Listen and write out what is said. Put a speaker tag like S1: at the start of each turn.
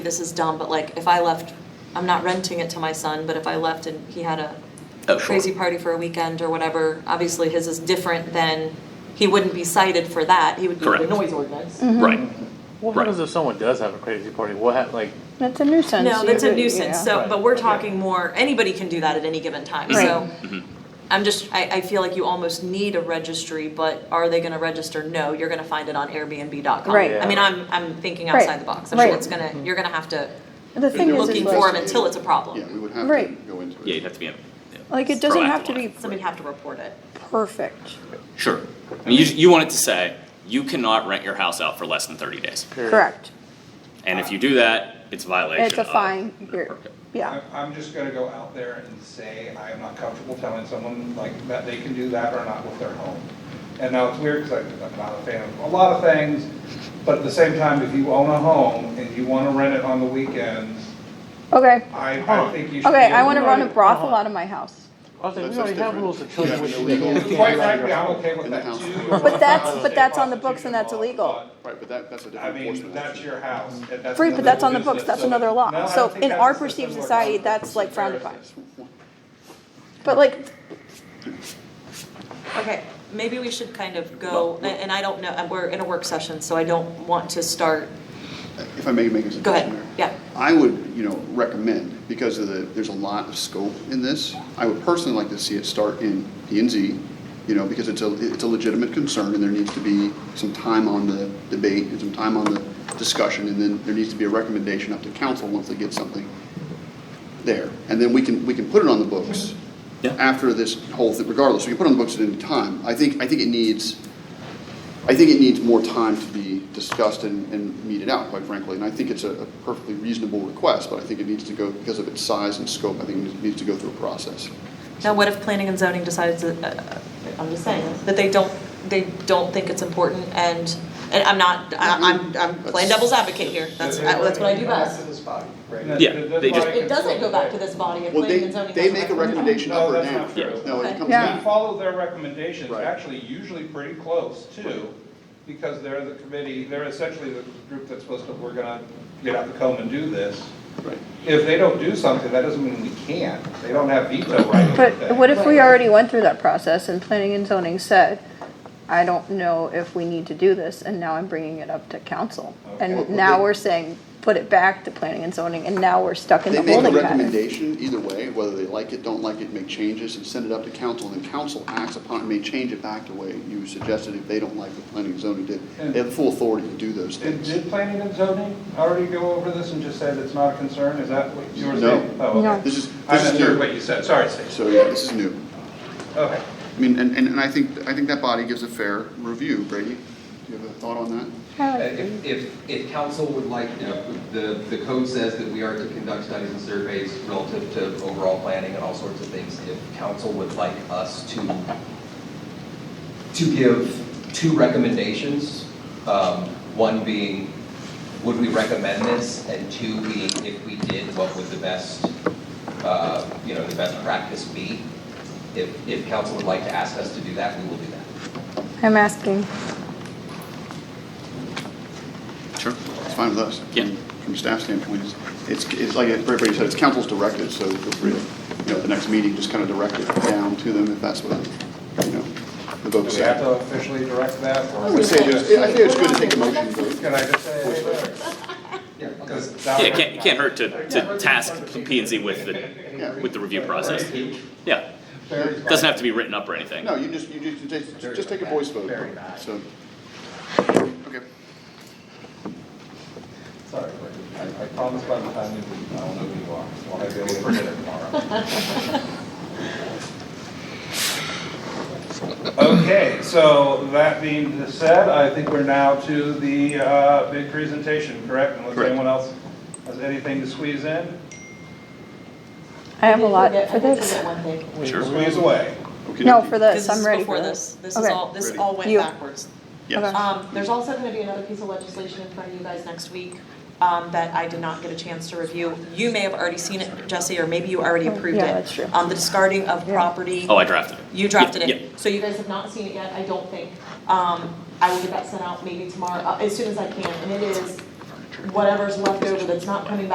S1: this is dumb, but like if I left, I'm not renting it to my son, but if I left and he had a
S2: Oh, sure.
S1: crazy party for a weekend or whatever, obviously his is different than, he wouldn't be cited for that, he would be the
S2: Correct.
S1: noise ordinance.
S2: Right.
S3: Well,
S2: Right.
S3: what happens if someone does have a crazy party? What hap like?
S4: That's a nuisance.
S1: No, that's a
S4: You-
S1: nuisance,
S4: yeah.
S1: so,
S3: Right.
S1: but we're
S3: Okay.
S1: talking more, anybody can do that at any given time,
S4: Right.
S1: so. I'm just, I, I feel like you almost need a registry, but are they gonna register? No, you're gonna find it on Airbnb.com.
S4: Right.
S1: I mean, I'm, I'm thinking
S4: Right.
S1: outside the box, I'm sure
S4: Right.
S1: it's gonna, you're gonna have to
S4: The thing
S1: be
S4: is,
S1: looking
S4: is
S1: for them
S4: like,
S1: until it's a
S5: Yeah, we
S1: problem.
S5: would have to
S4: Right.
S5: go into it.
S2: Yeah, you'd have to be. yeah,
S4: like it doesn't have
S2: proactive
S4: to
S2: on it.
S4: be
S1: Somebody'd have to report it.
S4: perfect.
S2: Sure. I mean, you, you want it to say, you cannot rent your house out for less than thirty days.
S3: period?
S4: Correct.
S2: And if you do that, it's a violation
S4: It's a
S2: of-
S4: fine. You're- Yeah.
S6: I'm, I'm just gonna go out there and say, I am not comfortable telling someone like that they can do that or not with their home. And now it's weird, cause I'm I'm not a fan of a lot of things, but at the same time, if you own a home and you wanna rent it on the weekends,
S4: Okay.
S6: I,
S5: Oh.
S6: I think you should.
S4: Okay,
S6: be
S4: I want to
S6: able
S4: run a brothel
S3: Uh-huh.
S4: out of my house.
S3: I was like,
S5: That's-
S3: we already
S5: that's
S3: have
S5: different.
S3: rules that
S5: You
S3: tell you
S5: have
S3: what you can
S5: illegal-
S3: and can't
S6: Quite
S3: do out of
S6: frankly,
S3: your
S6: I'm
S3: home.
S6: okay with
S5: In the
S6: that
S5: house.
S6: too.
S4: But that's- but that's on the books and that's illegal.
S5: Right, but that, that's a
S6: I
S5: different
S6: mean,
S5: enforcement.
S6: that's
S5: action.
S6: your house. and
S4: Free, but that's on the
S6: another
S4: books, that's
S6: business,
S4: another
S6: so- No,
S4: law.
S6: I
S4: So
S6: think
S4: in
S6: that's
S4: our
S6: the system
S4: perceived
S6: we're
S4: society,
S6: going.
S4: that's like frowned
S6: It's
S4: upon.
S6: embarrassing.
S4: But like,
S1: Okay, maybe we should kind of go, and and I don't know, and we're in a work session, so I don't want to start,
S5: If I may make a suggestion
S1: go ahead,
S5: there.
S1: yeah.
S5: I would, you know, recommend, because of the, there's a lot of scope in this, I would personally like to see it start in P and Z, you know, because it's a, it's a legitimate concern, and there needs to be some time on the debate, and some time on the discussion, and then there needs to be a recommendation up to council once they get something there. And then we can, we can put it on the books
S2: Yeah.
S5: after this whole thing, regardless, we can put it on the books at any time. I think, I think it needs, I think it needs more time to be discussed and, and meted out, quite frankly, and I think it's a a perfectly reasonable request, but I think it needs to go, because of its size and scope, I think it needs to go through a process.
S1: Now, what if planning and zoning decides that, uh, I'm just saying, that they don't, they don't think it's important and, and I'm not,
S5: Mm-hmm.
S1: I- I'm, I'm playing devil's advocate here, that's, that's what I do best.
S6: That-
S2: Yeah,
S6: that- that's
S2: they
S6: why
S2: just-
S6: I
S1: It doesn't go back to
S6: control
S1: this body if
S5: Well,
S1: planning
S5: they,
S1: and zoning.
S5: they
S1: doesn't
S5: make a
S1: recommend it.
S5: recommendation up
S6: No,
S5: or
S6: that's
S5: down.
S6: not true.
S5: No, it
S1: Okay.
S5: comes
S4: Yeah.
S6: that. We
S5: down.
S6: follow their recommendations,
S5: Right.
S6: actually usually pretty close too, because they're the committee, they're essentially the group that's supposed to, we're gonna get out the comb and do this.
S5: Right.
S6: If they don't do something, that doesn't mean we can't. They don't have veto right over
S4: but
S6: things.
S4: what if we already went through that process and planning and zoning said, I don't know if we need to do this, and now I'm bringing it up to council.
S5: Okay.
S4: And now we're saying, put it back to planning and zoning, and now we're stuck in
S5: They
S4: the
S5: make a
S4: holding pattern.
S5: recommendation either way, whether they like it, don't like it, make changes, and send it up to council, and then council acts upon it, may change it back the way you suggested if they don't like the planning and zoning did. They have full authority to do those
S6: Did,
S5: things.
S6: did planning and zoning already go over this and just said it's not a concern? Is that what you were
S5: No.
S6: saying? Oh, okay.
S4: No.
S5: This is,
S6: I
S5: this is
S6: misheard
S5: new,
S6: what you said. Sorry, Stacey.
S5: so yeah, this is new.
S6: Okay.
S5: I mean, and, and and I think, I think that body gives a fair review, Brady. Do you have a thought on that?
S4: I like it.
S7: Uh, If, if, if council would like, you know, the, the code says that we are to conduct studies and surveys relative to overall planning and all sorts of things. If council would like us to, to give two recommendations, um, one being, would we recommend this? And two being, if we did, what would the best, uh, you know, the best practice be? If, if council would like to ask us to do that, we will do that.
S4: I'm asking.
S2: Sure.
S5: It's fine with us.
S2: Yeah.
S5: From a staff standpoint, it's- it's, it's like Brady said, it's council's directive, so feel free, to, you know, at the next meeting, just kind of direct it down to them if that's what, you know, the
S6: Do
S5: vote
S6: we have
S5: said.
S6: to officially direct that? or-
S5: I would say, there's- I think it's good to take a motion. vote.
S6: Can I just say, hey, there?
S7: Yeah,
S6: Because that
S2: Yeah,
S6: would-
S2: it can't, it can't hurt to, to task P and Z with the, with the review process. Yeah,
S6: Barry's-
S2: doesn't have to be written up or anything.
S5: No, you just, you just- you just, just take a voice vote.
S6: Very nice.
S5: So, okay.
S6: Sorry, I, I promise by the time you leave, I will know who you are. Well, I'll be able to forget it tomorrow. Okay, so that being said, I think we're now to the, uh, big presentation, correct? Unless
S5: Correct.
S6: anyone else has anything to squeeze in,
S4: I have a lot
S1: did
S4: for
S1: forget- I did
S4: this.
S1: forget one thing.
S2: Sure.
S6: squeeze away.
S5: Okay.
S4: No, for this,
S1: This
S4: I'm
S1: is
S4: ready
S1: before
S4: for
S1: this.
S4: this.
S1: This is
S4: Okay.
S1: all, this
S5: Ready.
S1: all went
S4: You-
S1: backwards.
S5: Yes.
S4: Okay.
S1: Um, there's also gonna be another piece of legislation in front of you guys next week, um, that I did not get a chance to review. You may have already seen it, Jesse, or maybe you already
S4: Oh,
S1: approved it.
S4: yeah, that's true.
S1: Um, the discarding of
S4: Yeah.
S1: property.
S2: Oh, I drafted it.
S1: You drafted
S2: Yeah, yeah.
S1: it, so you guys have not seen it yet, I don't think. Um, I will get that sent out maybe tomorrow, uh, as soon as I can, and it is whatever's left over that's not coming back